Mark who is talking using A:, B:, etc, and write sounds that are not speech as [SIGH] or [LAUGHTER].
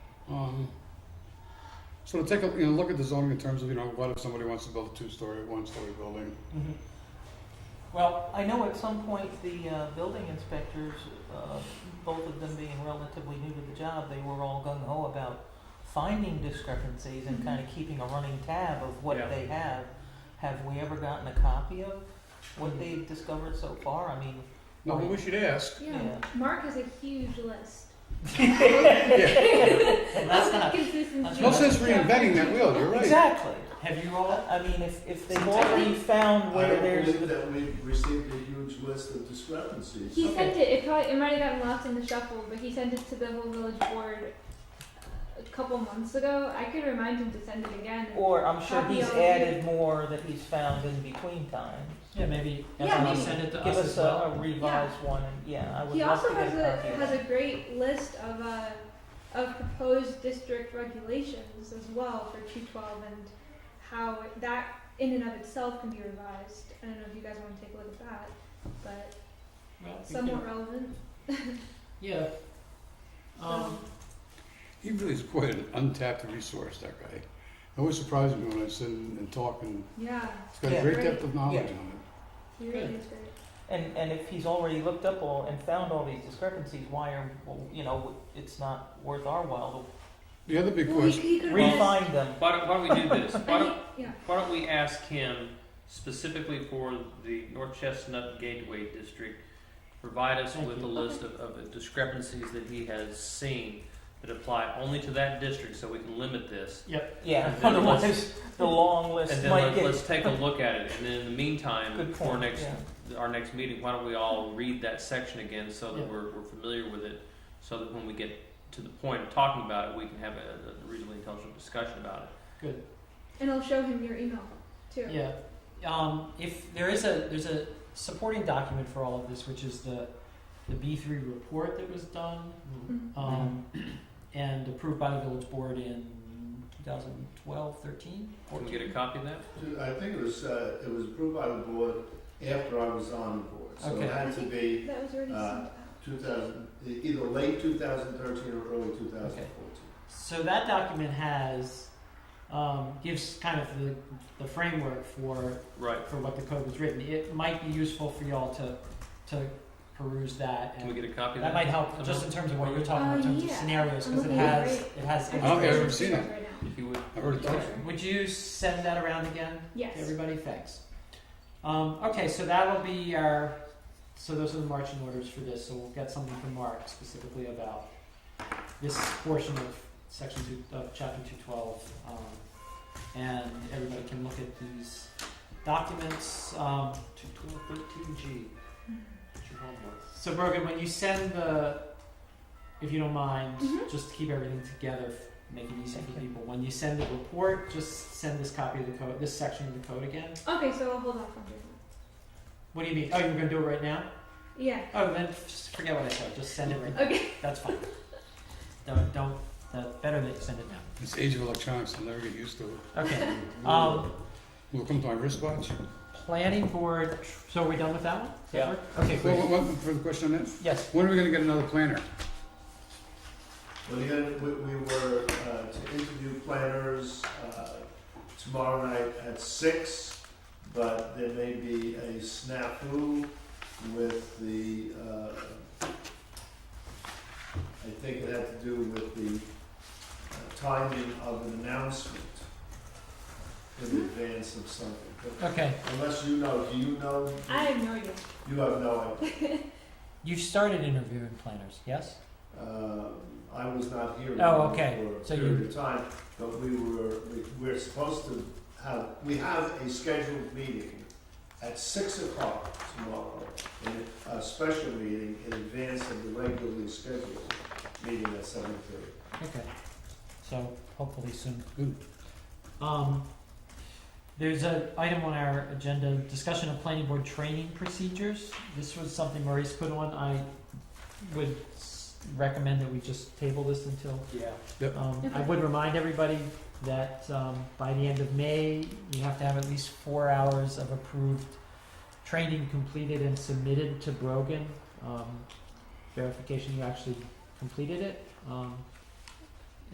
A: Um, so to take a, you know, look at the zoning in terms of, you know, what if somebody wants to build a two-story, one-story building?
B: Mhm. Well, I know at some point the uh, building inspectors, uh, both of them being relatively new to the job, they were all gung ho about finding discrepancies
C: Mm-hmm.
B: and kind of keeping a running tab of what
D: Yeah.
B: they have. Have we ever gotten a copy of what
D: Mhm.
C: Mm-hmm.
B: they've discovered so far? I
C: [LAUGHS]
B: mean,
A: No, but we should ask.
E: Yeah, Mark has a huge list.
A: Yeah,
B: that's not that's
E: Consistency.
A: no sense reinventing that wheel, you're right.
B: exactly.
D: Have you all?
B: I mean, if if they've
D: Well,
B: already found
C: I
B: where
C: don't
B: there's
C: believe that we received a huge list of discrepancies.
E: He sent it, it probably, it might have gotten lost in the shuffle, but he sent it to the whole village board a couple months ago. I could remind him to send it again.
B: or I'm sure
E: Copy
B: he's
E: of-
B: added more that he's found in between times.
D: Yeah, maybe.
E: Yeah,
D: Ezra,
E: maybe.
D: Send it to
B: Give
D: us
B: us
D: as
B: a,
D: well.
B: a revised one, and yeah, I would
E: He
B: love
E: also
B: to get
E: has a,
B: copy of
E: has
B: that.
E: a great list of, uh, of proposed district regulations as well for two twelve and how it- that in and of itself can be revised. I don't know if you guys wanna take a look at that, but
D: Well, we can-
E: somewhat relevant,
D: Yeah.
E: so.
D: Um,
A: He really is quite an untapped resource, that guy. It always surprises me when I sit and and talk and
E: Yeah,
A: he's got
B: Yeah.
A: a great depth of knowledge
B: Yeah.
A: on it.
E: he really is great.
B: And, and if he's already looked up all and found all these discrepancies, why are, well, you know, it's not worth our while
A: The other big
E: Well, he,
A: question,
E: he
B: to
E: could have.
B: refine them.
F: Why don't, why don't we do this? Why
E: I mean,
F: don't,
E: yeah,
F: why don't we ask him specifically for the North Chestnut Gateway District, provide us
B: Thank
F: with
B: you.
F: a list of, of discrepancies that he has seen that apply only to that district, so we can limit this.
B: Yeah,
F: And then
B: [LAUGHS] otherwise, the long list
F: And then
B: might
F: let,
B: get,
F: let's take
B: [LAUGHS]
F: a look at it, and then in the meantime,
B: Good
F: for
B: point,
F: next, our next meeting, why don't we all read that section again so
D: Yeah.
F: that we're, we're familiar with it, so that when we get to the point of talking about it, we can have a, a reasonably intelligent discussion about it.
E: and I'll show him your email too.
D: yeah. Um, if there is a there's a supporting document for all of this, which is the the B three report that was done
E: Mhm.
D: um, [CLEARS THROAT] and approved by the village board in 2012, 13,
F: Can
D: 14.
F: we get a copy of that?
C: I think it was, uh, it was approved by the board after I was on the board. So
D: Okay.
C: it
E: I
C: had to
E: think
C: be
E: That was already sent
C: uh,
E: out.
C: 2000, e- either late 2013 or early 2014.
D: So that document has um, gives kind of the, the framework for
F: Right.
D: for what the code was written. It might be useful for y'all to to peruse that
F: Can we
D: and
F: get a copy of that?
D: that might help
F: somehow?
D: just in terms of what you're talking about in
E: Uh,
D: terms of
E: yeah.
D: scenarios because it
E: Okay,
D: has
E: great.
D: it has
E: I
A: don't think I've ever
D: information.
A: seen it.
E: Right now.
F: If you would.
A: I've heard it talked.
D: Would you send that around again to
E: Yes.
D: everybody? Thanks. Um, okay, so that'll be our so those are the marching orders for this. So we'll get something from Mark specifically about this portion of section two of chapter two twelve. Um, and everybody can look at these documents. Um,
F: Two twelve thirteen G.
D: So Brogan, when you send the, if you don't mind,
E: Mhm.
D: just to keep everything together, f- make it easy for people. When you send the report, just send this copy of the code, this section of the code again.
E: Okay, so I'll hold off on doing
D: What do you mean? Oh, you're gonna do it right now?
E: that. Yeah.
D: Oh, then f- just forget what I said. Just send it right now.
E: Okay. [LAUGHS]
D: That's fine. Don't don't. The better that you send it now.
A: This age of electronics, I'll never get used to it.
D: Okay. Um,
A: Will it come to my wristwatch?
D: planning board. tr- So are we done with that one? Does that
F: Yeah.
D: work? Okay.
A: Well,
D: Great.
A: what, what, for the question on that,
D: Yes.
A: when are we gonna get another planner?
C: Well, again, we, we were uh, to interview planners uh, tomorrow night at six, but there may be a snafu with the, uh, I think it had to do with the uh, timing of an announcement in advance of something. But
D: Okay.
C: Unless you know, do you know?
E: I have no idea.
C: You have no idea.
D: You've started interviewing planners. Yes.
C: Um, I was not here
D: Oh, okay.
C: for
D: So
C: a
D: you-
C: period of time, but we were, we- we're supposed to have, we have a scheduled meeting at six o'clock tomorrow, and a special meeting in advance of the regularly scheduled meeting at seven thirty.
D: Okay. So hopefully soon.
A: Good.
D: Um, there's an item on our agenda, discussion of planning board training procedures. This was something Maurice put on. I would s- recommend that we just table this until
F: Yeah.
D: um, I would remind everybody that um, by the end of May, you have to have at least four hours of approved training completed and submitted to Brogan. Um, verification you actually completed it. Um,